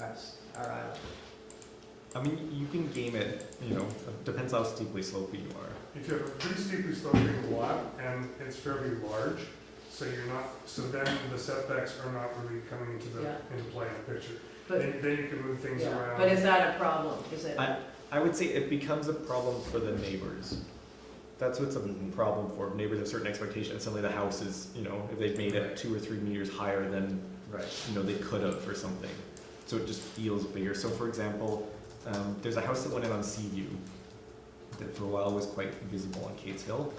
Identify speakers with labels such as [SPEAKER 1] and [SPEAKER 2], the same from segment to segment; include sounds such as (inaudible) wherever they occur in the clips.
[SPEAKER 1] our, s- our island.
[SPEAKER 2] I mean, you can game it, you know, depends how steeply slopy you are.
[SPEAKER 3] If you have a pretty steeply sloping lot and it's fairly large, so you're not, so then the setbacks are not really coming into the,
[SPEAKER 1] Yeah.
[SPEAKER 3] into play in the picture.
[SPEAKER 1] But,
[SPEAKER 3] Then, then you can move things
[SPEAKER 1] yeah,
[SPEAKER 3] around.
[SPEAKER 1] but is that a problem? Is it?
[SPEAKER 2] I, I would say it becomes a problem for the neighbors. That's what's a problem for, neighbors have certain expectations, suddenly the house is, you know, if they've made it two or three meters higher than,
[SPEAKER 4] Right.
[SPEAKER 2] you know, they could have for something. So it just feels bigger. So for example, um, there's a house that went in on Seaview that for a while was quite visible on Cates Hill.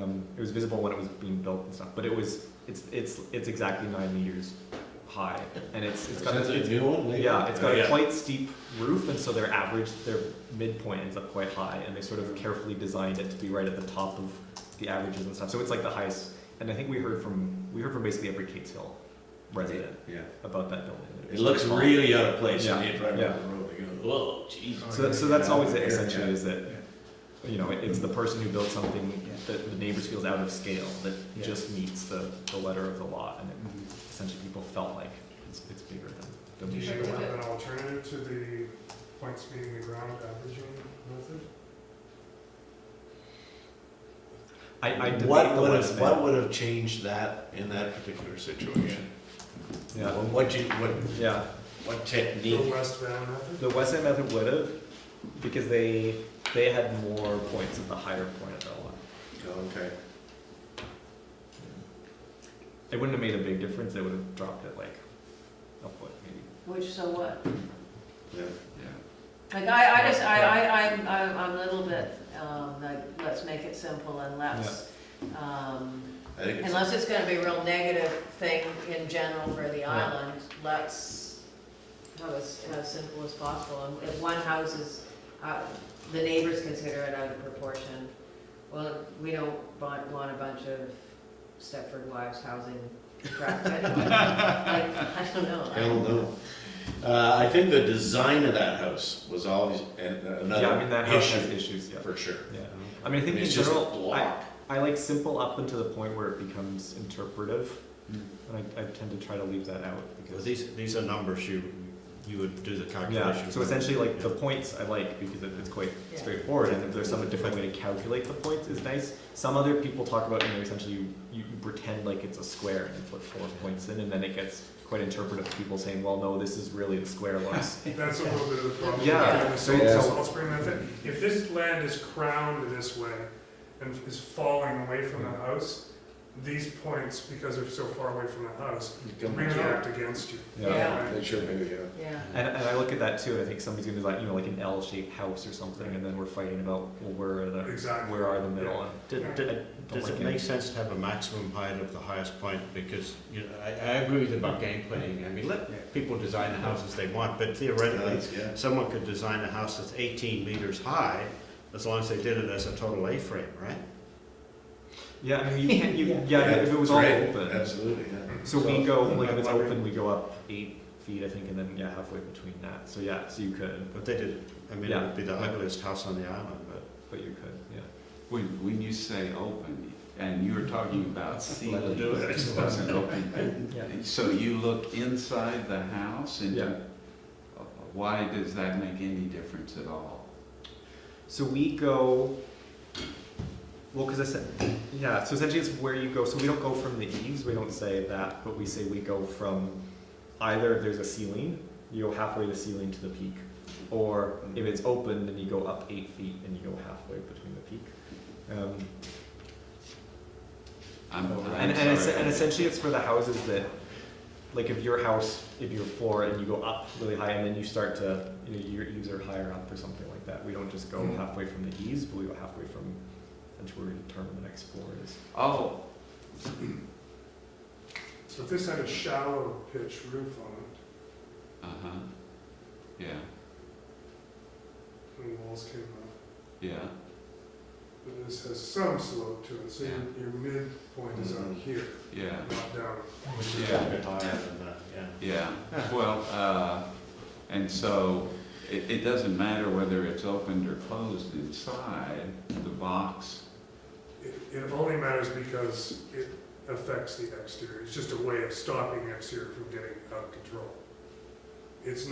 [SPEAKER 2] Um, it was visible when it was being built and stuff, but it was, it's, it's, it's exactly nine meters high and it's, it's got,
[SPEAKER 4] Is that
[SPEAKER 2] it's
[SPEAKER 4] a new one? maybe?
[SPEAKER 2] Yeah, it's got a
[SPEAKER 4] Yeah.
[SPEAKER 2] quite steep roof, and so their average, their midpoint ends up quite high, and they sort of carefully designed it to be right at the top of the averages and stuff. So it's like the highest, and I think we heard from we heard from basically every Cates Hill resident
[SPEAKER 4] Yeah.
[SPEAKER 2] about that building. that
[SPEAKER 4] It
[SPEAKER 2] was
[SPEAKER 4] looks
[SPEAKER 2] small.
[SPEAKER 4] really out of place when
[SPEAKER 2] Yeah,
[SPEAKER 4] you drive
[SPEAKER 2] yeah.
[SPEAKER 4] down the road, they go, whoa, Jesus.
[SPEAKER 2] So, that- so that's always it. Essentially,
[SPEAKER 4] Yeah.
[SPEAKER 2] is that you know it, it's the person who built something that the neighbors feels out of scale that
[SPEAKER 4] Yeah. Mm-hmm.
[SPEAKER 2] just meets the, the letter of the law, and it, essentially people felt like it's, it's bigger than.
[SPEAKER 3] Do
[SPEAKER 2] than
[SPEAKER 3] you
[SPEAKER 2] we
[SPEAKER 3] have
[SPEAKER 2] should.
[SPEAKER 3] an alternative to the points meeting the ground averaging method?
[SPEAKER 2] I, I debate
[SPEAKER 4] What
[SPEAKER 2] the
[SPEAKER 4] would
[SPEAKER 2] West
[SPEAKER 4] have,
[SPEAKER 2] Bank.
[SPEAKER 4] what would have changed that in that particular situation?
[SPEAKER 2] Yeah.
[SPEAKER 4] What- What you, what,
[SPEAKER 2] Yeah.
[SPEAKER 4] what
[SPEAKER 3] The
[SPEAKER 4] technique?
[SPEAKER 3] West Van
[SPEAKER 2] (laughs)
[SPEAKER 3] method?
[SPEAKER 2] The West End method would have, because they they had more points at the higher point of their lot.
[SPEAKER 4] Oh, Okay.
[SPEAKER 2] It wouldn't have made a big difference. They would have dropped it like a foot, maybe.
[SPEAKER 1] Which, so what?
[SPEAKER 4] Yeah.
[SPEAKER 1] Like, I, I just, I, I, I'm, I'm I'm a little bit, um, like, let's make it simple and let's, um,
[SPEAKER 4] I think it's,
[SPEAKER 1] unless it's gonna be a real negative thing in general for the island, let's have as, as simple as possible. And If one house is, uh, the neighbors consider it out of proportion, well, we don't want, want a bunch of Stepford wives housing
[SPEAKER 4] (laughs)
[SPEAKER 1] crap anyway. Like, I don't know. I-
[SPEAKER 4] hell no. Uh, I think the design of that house was always an-
[SPEAKER 2] yeah, I mean
[SPEAKER 4] another
[SPEAKER 2] that house has
[SPEAKER 4] issue,
[SPEAKER 2] issues. Yeah.
[SPEAKER 4] for sure.
[SPEAKER 2] Yeah. I mean, I
[SPEAKER 4] I
[SPEAKER 2] think
[SPEAKER 4] mean,
[SPEAKER 2] in
[SPEAKER 4] It's just a
[SPEAKER 2] general, I,
[SPEAKER 4] block.
[SPEAKER 2] I like simple up until the point where it becomes interpretive,
[SPEAKER 4] Mm.
[SPEAKER 2] and I, I tend to try to leave that out because
[SPEAKER 5] Because these, these are numbers you, you would do the calculation.
[SPEAKER 2] yeah. So
[SPEAKER 5] with.
[SPEAKER 2] essentially, like the
[SPEAKER 5] Yeah.
[SPEAKER 2] points I like because it, it's quite
[SPEAKER 1] Yeah.
[SPEAKER 2] straightforward, and if there's some different way to calculate the points is nice. Some other people talk about you know essentially you, you you pretend like it's a square and you put four points in, and then it gets quite interpretive. to People saying, well, no, this is really the square
[SPEAKER 5] (laughs)
[SPEAKER 2] looks.
[SPEAKER 3] That's a little bit of the problem.
[SPEAKER 2] Yeah.
[SPEAKER 3] with the
[SPEAKER 2] So-
[SPEAKER 3] salt-
[SPEAKER 2] so-
[SPEAKER 3] Salt spring method, if this land is crowned this way and is falling away from the house, these points, because they're so far away from the house, react against you.
[SPEAKER 2] Yeah.
[SPEAKER 1] Yeah.
[SPEAKER 4] They should maybe, yeah.
[SPEAKER 1] Yeah.
[SPEAKER 2] And, and I look at that too, and I think somebody's gonna be like, you know, like an L-shaped house or something, and then we're fighting about, well, where are the,
[SPEAKER 3] Exactly.
[SPEAKER 2] where are the middle? And
[SPEAKER 5] D-
[SPEAKER 2] I
[SPEAKER 5] d-
[SPEAKER 2] don't
[SPEAKER 5] Does
[SPEAKER 2] like
[SPEAKER 5] it make sense to have a maximum height of the highest point? Because, you know, I, I agree with you about game planning. I mean, let people design the houses they want, but theoretically,
[SPEAKER 4] Yeah.
[SPEAKER 5] someone could design a house that's eighteen meters high, as long as they did it as a total A-frame, right?
[SPEAKER 2] Yeah, I mean, you can't, you, yeah, if it was all
[SPEAKER 4] Right,
[SPEAKER 2] open.
[SPEAKER 4] Absolutely, yeah.
[SPEAKER 2] So we
[SPEAKER 5] So-
[SPEAKER 2] go, like, if
[SPEAKER 5] I'm
[SPEAKER 2] it's
[SPEAKER 5] wondering-
[SPEAKER 2] open, we go up eight feet, I think, and then, yeah, halfway between that, so yeah, so you could,
[SPEAKER 5] But they did, I mean, it would be the ugliest house on the island, but.
[SPEAKER 2] but you could, yeah.
[SPEAKER 6] When, when you say open, and you were talking about
[SPEAKER 2] Let it
[SPEAKER 6] ceiling,
[SPEAKER 2] do it.
[SPEAKER 6] it wasn't open.
[SPEAKER 2] Yeah.
[SPEAKER 6] So you look inside the house and
[SPEAKER 2] Yeah.
[SPEAKER 6] why does that make any difference at all?
[SPEAKER 2] So we go, well, because I said, yeah, so essentially it's where you go. So we don't go from the eaves, we don't say that, but we say we go from either if there's a ceiling, you go halfway to the ceiling to the peak, or if it's open, then you go up eight feet and you go halfway between the peak. Um,
[SPEAKER 6] I'm,
[SPEAKER 2] and,
[SPEAKER 6] I'm
[SPEAKER 2] and, es- and
[SPEAKER 6] sorry.
[SPEAKER 2] essentially it's for the houses that, like if your house, if your floor and you go up really high and then you start to, you know, your eaves are higher up or something like that. We don't just go
[SPEAKER 3] Mm.
[SPEAKER 2] halfway from the eaves, but we go halfway from, until we determine the next floor is.
[SPEAKER 6] Oh,
[SPEAKER 3] So if this had a shallow pitch roof on it,
[SPEAKER 6] uh-huh, yeah,
[SPEAKER 3] and the walls came up,
[SPEAKER 6] yeah,
[SPEAKER 3] but this has some slope to it, so your, your midpoint is
[SPEAKER 4] Mhm.
[SPEAKER 3] on here,
[SPEAKER 6] yeah,
[SPEAKER 3] not down.
[SPEAKER 6] Yeah.
[SPEAKER 5] A bit higher than that, yeah.
[SPEAKER 6] yeah. Well, uh, and so it, it doesn't matter whether it's opened or closed inside, the box
[SPEAKER 3] It, it only matters because it affects the exterior, it's just a way of stopping the exterior from getting out of control. It's